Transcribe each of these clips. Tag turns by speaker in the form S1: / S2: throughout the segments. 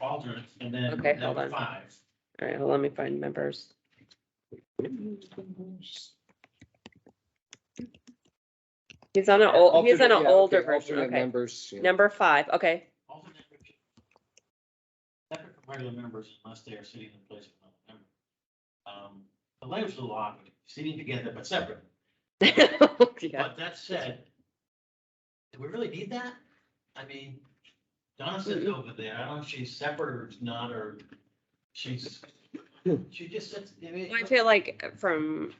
S1: alternates, and then
S2: Okay,
S1: that
S2: hold
S1: was
S2: on.
S1: five.
S2: All right, well, let me find members. He's on an old, he's on an
S3: Alternate- yeah,
S2: older
S3: okay,
S2: version,
S3: alternate
S2: okay.
S3: Members. yeah.
S2: Number five, okay,
S1: Alternate would be Separate from regular members unless they are sitting in place of another member. Um, the language of the law, sitting together but separate.
S2: yeah,
S1: But that said, do we really need that? I mean, Donna sits over there, I don't know if she's separate or it's not, or she's, she just sits, I mean.
S2: I feel like from,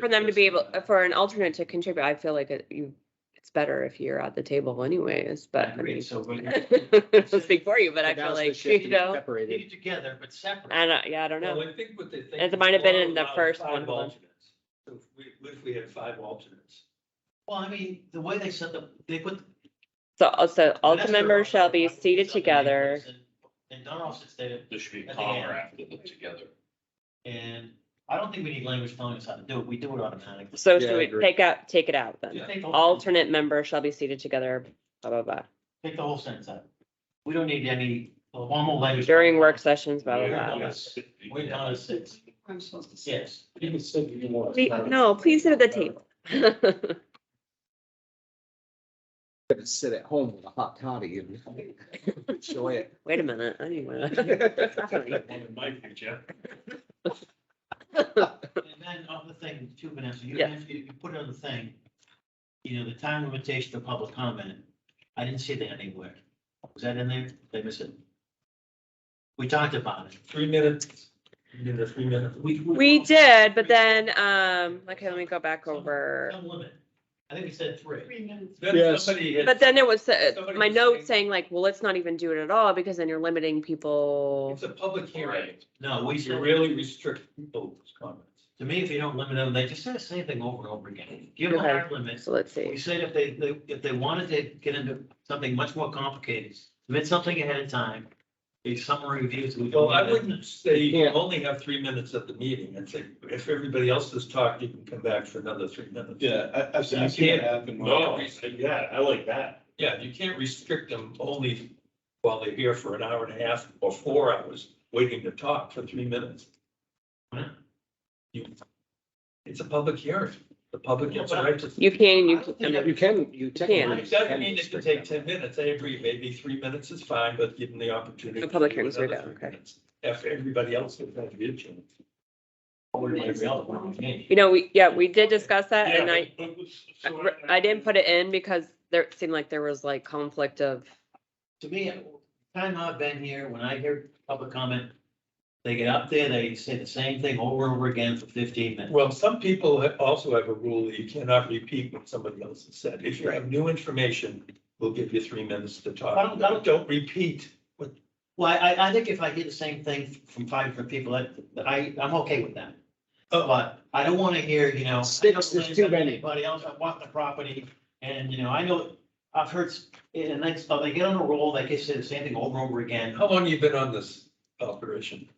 S2: for them to be able, for an alternate to contribute, I feel like it, you, it's better if you're at the table anyways,
S1: I
S2: but I
S1: agree,
S2: mean.
S1: so when you
S2: I'll Speak for you, but I
S3: That
S2: feel
S3: was the
S2: like,
S3: shift
S2: you
S3: to be
S2: know,
S3: Separated.
S1: leave together but separate.
S2: I don't, yeah, I don't know,
S4: Well, I think what they think.
S2: It might have been in the
S4: allows
S2: first
S4: five
S2: one, hold on.
S4: alternates. So if we, what if we had five alternates?
S1: Well, I mean, the way they set the, they put.
S2: so, also, all the
S1: Vanessa
S2: members shall be
S1: Rothrock was
S2: seated
S1: up in
S2: together,
S1: Naples and- And Donald sits there,
S5: There should be
S1: At the
S5: a comma
S1: end.
S5: after them together.
S1: and I don't think we need language telling us how to do it, we do it automatically.
S2: so
S3: Yeah, I
S2: should we
S3: agree.
S2: take out, take it out then?
S1: Just take the whole-
S2: Alternate members shall be seated together, blah, blah, blah,
S1: Take the whole sentence out. We don't need any formal language.
S2: during work sessions, blah,
S1: We're
S2: blah,
S1: done
S2: blah.
S1: at six. We're done at six,
S6: I'm supposed to say.
S1: yes.
S5: You can sit if you want.
S2: Please- No, please sit at the table.
S3: Gonna sit at home with a hot toddy and enjoy it.
S2: Wait a minute, I need one. Sorry.
S5: One in my future.
S1: And then on the thing too, Vanessa, you,
S2: Yeah.
S1: you you put on the thing, you know, the time limitation of public comment. I didn't see that anywhere. Was that in there? Did I miss it? We talked about it.
S4: Three minutes, you need a three minute.
S2: We did, but then, um, okay, let me go back over.
S1: Some limit. I think we said three.
S6: Three minutes.
S4: Then
S3: Yes.
S4: somebody had.
S2: But then it was, uh,
S4: Somebody
S2: my
S4: was
S2: note
S4: saying-
S2: saying like, well, let's not even do it at all because then you're limiting people.
S4: It's a public hearing.
S1: No, we
S4: We should
S1: said,
S4: really restrict people's comments.
S1: to me, if you don't limit them, they just say the same thing over and over again. Give them
S2: Okay.
S1: hard limits.
S2: So let's
S1: We
S2: see.
S1: said if they, they- if they wanted to get into something much more complicated, submit something ahead of time. A summary reviews. we don't
S4: Well, I
S1: need it.
S4: wouldn't say you
S3: Yeah.
S4: only have three minutes at the meeting. I'd say if everybody else has talked, you can come back for another three minutes.
S5: I, I've
S4: I've seen that
S5: happen.
S4: No.
S5: No, yeah, I like that.
S4: Yeah, you can't restrict them only while they're here for an hour and a half or four hours waiting to talk for three minutes.
S1: Huh?
S4: You- It's a public hearing. The public gets a right to.
S2: You can, you
S1: I don't
S2: can.
S1: think
S3: You can, you technically.
S4: It doesn't mean it
S3: can
S4: could take ten
S3: restrict
S4: minutes. I agree, maybe three minutes is fine, but given the opportunity.
S2: The public
S4: to do
S2: hearings are
S4: another
S2: done,
S4: three
S2: okay.
S4: minutes After everybody else has had a chance.
S1: Or maybe I'll want to change.
S2: You know, we, yeah, we did discuss that
S5: Yeah,
S2: Uh, and I,
S5: but- but- so
S2: I didn't put it in because there it seemed like there was like conflict of,
S1: To me, time I've been here, when I hear public comment, they get up there, they say the same thing over and over again for fifteen minutes.
S4: Well, some people ha- also have a rule that you cannot repeat what somebody else has said. If you have new information, we'll give you three minutes to talk.
S1: I don't- I don't-
S4: Don't repeat what,
S1: Well, I, I think if I hear the same thing from five different people, that, that I, I'm okay with that. But I don't wanna hear, you know.
S3: Six is too many.
S1: Anybody else, I want the property, and, you know, I know, I've heard, s- and next, but they get on a roll, they just say the same thing over and over again.
S4: how long you been on this operation?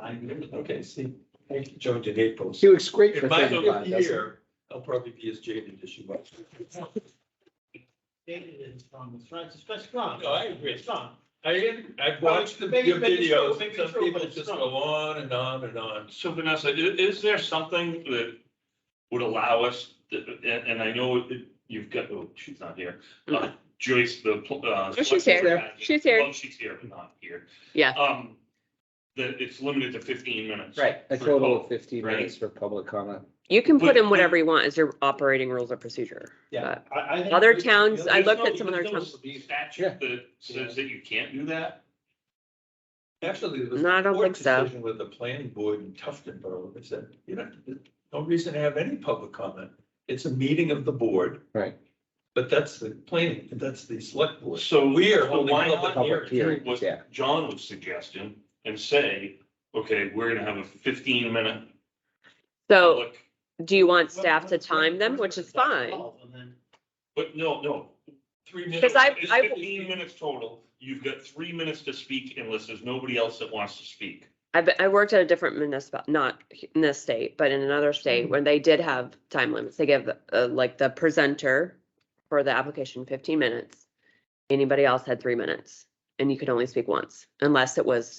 S1: I-
S4: Okay, see, I joined in April.
S3: He was great for
S4: In my
S3: thirty-five,
S4: fifth
S3: doesn't he?
S4: year, I'll probably be as jaded as you are.
S1: David is strong, strong, especially strong.
S4: No, I agree.
S1: Strong.
S4: I, I've
S1: Well,
S4: watched the
S1: maybe-
S4: your
S1: maybe it's true,
S4: videos,
S1: maybe it's
S4: some
S1: true,
S4: people
S1: but it's
S4: just
S1: not.
S4: go on and on and on.
S5: So Vanessa, i- is there something that would allow us, to- and, and I know it- you've got, oh, she's not here. Uh, Joyce, the. pl- uh,
S2: Mm-hmm. Oh, she's
S5: select-
S3: here.
S2: She's here.
S5: Well, she's here, but not here.
S2: Yeah.
S5: Um, that it's limited to fifteen minutes.
S3: Right, a
S5: For
S3: total of
S5: both,
S3: fifteen
S5: right?
S3: minutes for public comment.
S2: you can put
S5: But-
S2: in whatever you want as your operating rules of procedure.
S1: Yeah.
S2: But
S1: I, I think
S2: Other
S1: we-
S2: towns, I
S5: There's
S2: looked
S5: no-
S2: at some other
S5: there's no
S2: towns.
S3: Yeah.
S5: Statute that says that you can't do that?
S4: Actually, there was.
S2: No, I don't
S4: a court
S2: think so.
S4: decision With the planning board in Tuftonboro, they said, you know, there's no reason to have any public comment. It's a meeting of the board.
S3: Right.
S4: But that's the planning, that's the select board.
S5: So
S4: We are
S5: so
S4: holding
S5: why not
S4: public
S3: Public
S4: hearing.
S3: hearing,
S5: what
S3: yeah.
S5: John was suggesting and say, okay, we're gonna have a fifteen minute
S2: So
S5: public.
S2: do you want staff to time them, which is fine?
S1: And then
S5: But no, no,
S4: Three
S5: It's
S4: minutes.
S2: 'Cause I- I-
S5: fifteen minutes total. You've got three minutes to speak unless there's nobody else that wants to speak.
S2: I've, been- I worked at a different municipal, not in this state, but in another
S5: Mm-hmm.
S2: state where they did have time limits. They give uh, like the presenter for the application fifteen minutes. Anybody else had three minutes. and you could only speak once unless it was